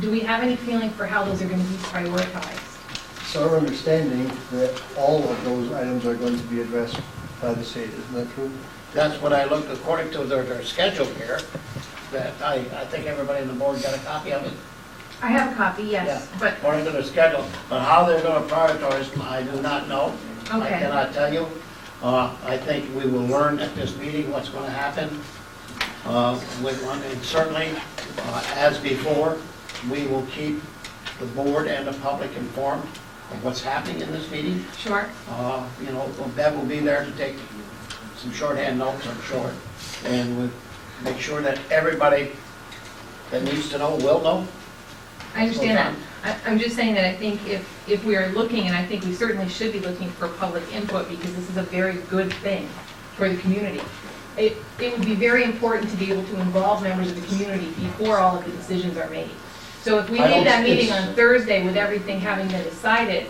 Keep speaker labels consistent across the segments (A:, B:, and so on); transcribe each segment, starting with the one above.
A: Do we have any feeling for how those are going to be prioritized?
B: It's our understanding that all of those items are going to be addressed by the state, isn't that true?
C: That's what I looked, according to their, their schedule here, that I, I think everybody on the board got a copy of it.
A: I have a copy, yes,
C: Yeah,
A: but,
C: According to their schedule, but how they're gonna prioritize, I do not know. I
A: Okay.
C: cannot tell you. Uh, I think we will learn at this meeting what's gonna happen, uh, with one, and certainly, uh, as before, we will keep the board and the public informed of what's happening in this meeting.
A: sure.
C: Uh, You know, Bev will be there to take some shorthand notes, I'm sure, and we make sure that everybody that needs to know will know.
A: I understand that. I- I'm just saying that I think if, if we are looking, and I think we certainly should be looking for public input, because this is a very good thing for the community. It, it would be very important to be able to involve members of the community before all of the decisions are made. So if we
C: I don't
A: leave that
C: think
A: meeting
C: it's-
A: on Thursday with everything having been decided,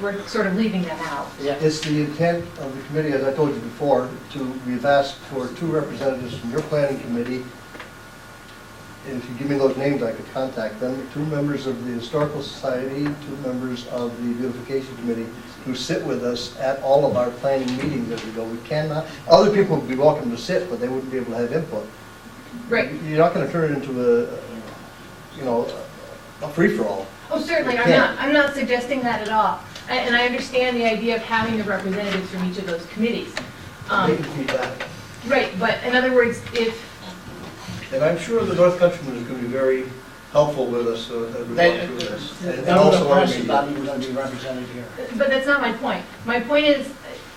A: we're sort of leaving them out.
C: Yeah,
B: It's the intent of the committee, as I told you before, to, we've asked for two representatives from your planning committee. And if you give me those names, I could contact them. Two members of the Historical Society, two members of the Beautification Committee, who sit with us at all of our planning meetings as we go. We cannot, other people would be welcome to sit, but they wouldn't be able to have input.
A: Right.
B: You're not gonna turn it into a, you know, a free-for-all.
A: Oh, certainly, I'm
B: Yeah.
A: not, I'm not suggesting that at all. A- And I understand the idea of having the representatives from each of those committees.
B: They
A: Um,
B: can feedback.
A: Right, but in other words, if,
B: And I'm sure the North Countryman is going to be very helpful with us uh, as we
C: They-
B: walk through this. And- And
C: None of the
B: also our
C: press is not
B: media.
C: even gonna be represented here.
A: But that's not my point. My point is,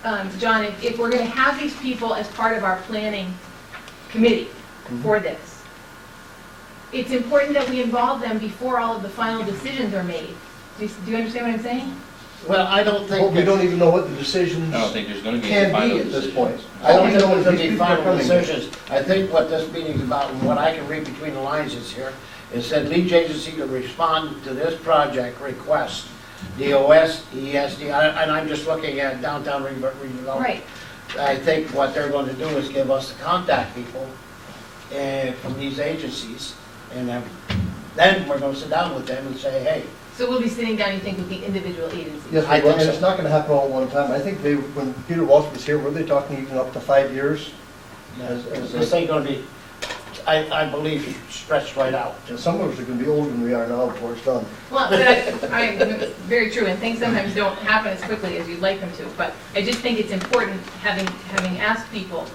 A: um, John, if- if we're going to have these people as part of our planning committee for this, it's important that we involve them before all of the final decisions are made. Do you- do you understand what I'm saying?
C: Well, I don't
B: But
C: think,
B: we don't e-
C: that-
B: even know what the decisions
D: I don't think there's gonna be
B: can
D: any final
B: be at this
D: decision.
B: point.
C: I don't
B: even
C: think
B: know
C: there's
B: if
C: gonna
B: these
C: be
B: people are
C: final
B: coming here.
C: decisions. I think what this meeting's about, and what I can read between the lines is here, it said leach agency to respond to this project request, DOS, ESD, E I- and I'm just looking at downtown re- redevelopment.
A: Right.
C: I think what they're going to do is give us the contact people eh, from these agencies, and then- then we're going to sit down with them and say, hey,
A: So we'll be sitting down, you think, with the individual agencies?
B: Yes,
C: I
B: we will,
C: think
B: and
C: so.
B: it's not going to happen all at one time. I think they, when Peter Walsh was here, were they talking even up to five years? As- as
C: this
B: a-
C: ain't going to be, I I believe, stretched right out.
B: And some of us are going to be older than we are now before it's done.
A: Well, but I, I, very true, and things sometimes don't happen as quickly as you'd like them to. But I just think it's important, having, having asked people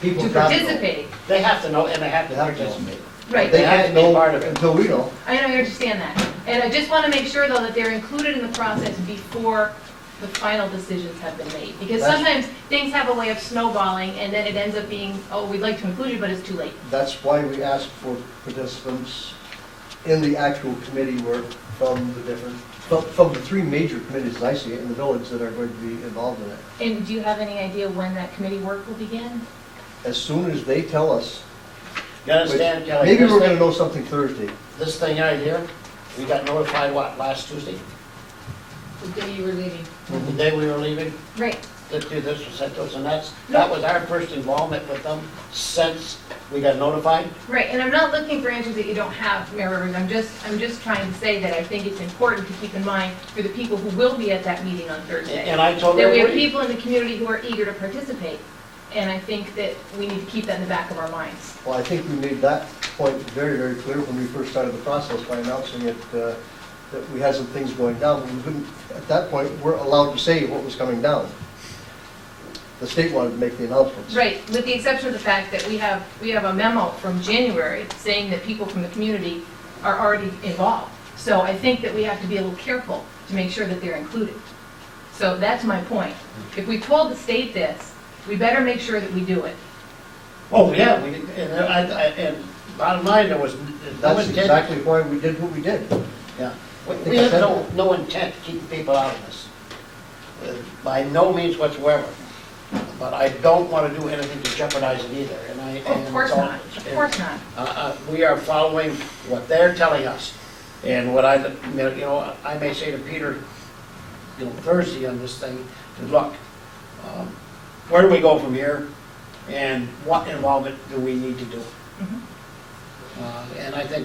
B: People
A: to
B: got to know.
A: participate.
C: They have to know, and they have to
B: They have to know.
C: participate.
A: Right.
B: They
C: They have
B: can't
C: to be
B: know
C: part of it.
B: until we know.
A: I know, I understand that. And I just want to make sure, though, that they're included in the process before the final decisions have been made. Because
B: That's-
A: sometimes things have a way of snowballing, and then it ends up being, oh, we'd like to include you, but it's too late.
B: That's why we ask for participants in the actual committee work from the different, from- from the three major committees I see in the village that are going to be involved in it.
A: And do you have any idea when that committee work will begin?
B: As soon as they tell us,
C: You understand, Kelly?
B: maybe
C: this
B: we're
C: thing-
B: going to know something Thursday.
C: This thing right here, we got notified, what, last Tuesday?
A: The day you were leaving.
B: Mm-hmm.
C: The day we were leaving,
A: Right.
C: that this was sent to us, and that's, that was our first involvement with them since we got notified.
A: Right, and I'm not looking for answers that you don't have, Mayor Rivers, I'm just, I'm just trying to say that I think it's important to keep in mind for the people who will be at that meeting on Thursday.
C: And I totally
A: That we have
C: agree.
A: people in the community who are eager to participate, and I think that we need to keep that in the back of our minds.
B: Well, I think we made that point very, very clear when we first started the process by announcing it, uh, that we had some things going down. We couldn't, at that point, we're allowed to say what was coming down. The state wanted to make the announcements.
A: Right, with the exception of the fact that we have, we have a memo from January saying that people from the community are already involved. So I think that we have to be a little careful to make sure that they're included. So that's my point. If we told the state this, we better make sure that we do it.
C: Oh, yeah, we, did- and I, I, and bottom line, there was no
B: That's
C: intent.
B: exactly why we did what we did.
C: Yeah, We- we had no, no intent to keep people out of this, uh, by no means whatsoever. But I don't want to do anything to jeopardize it either, and I.
A: Of
C: and
A: course
C: so-
A: not, of course not.
C: Uh, uh, We are following what they're telling us. And what I, you know, I may say to Peter, you know, Thursday on this thing, to look, um, where do we go from here? And what involvement do we need to do?
A: Mhm.
C: Uh, And I think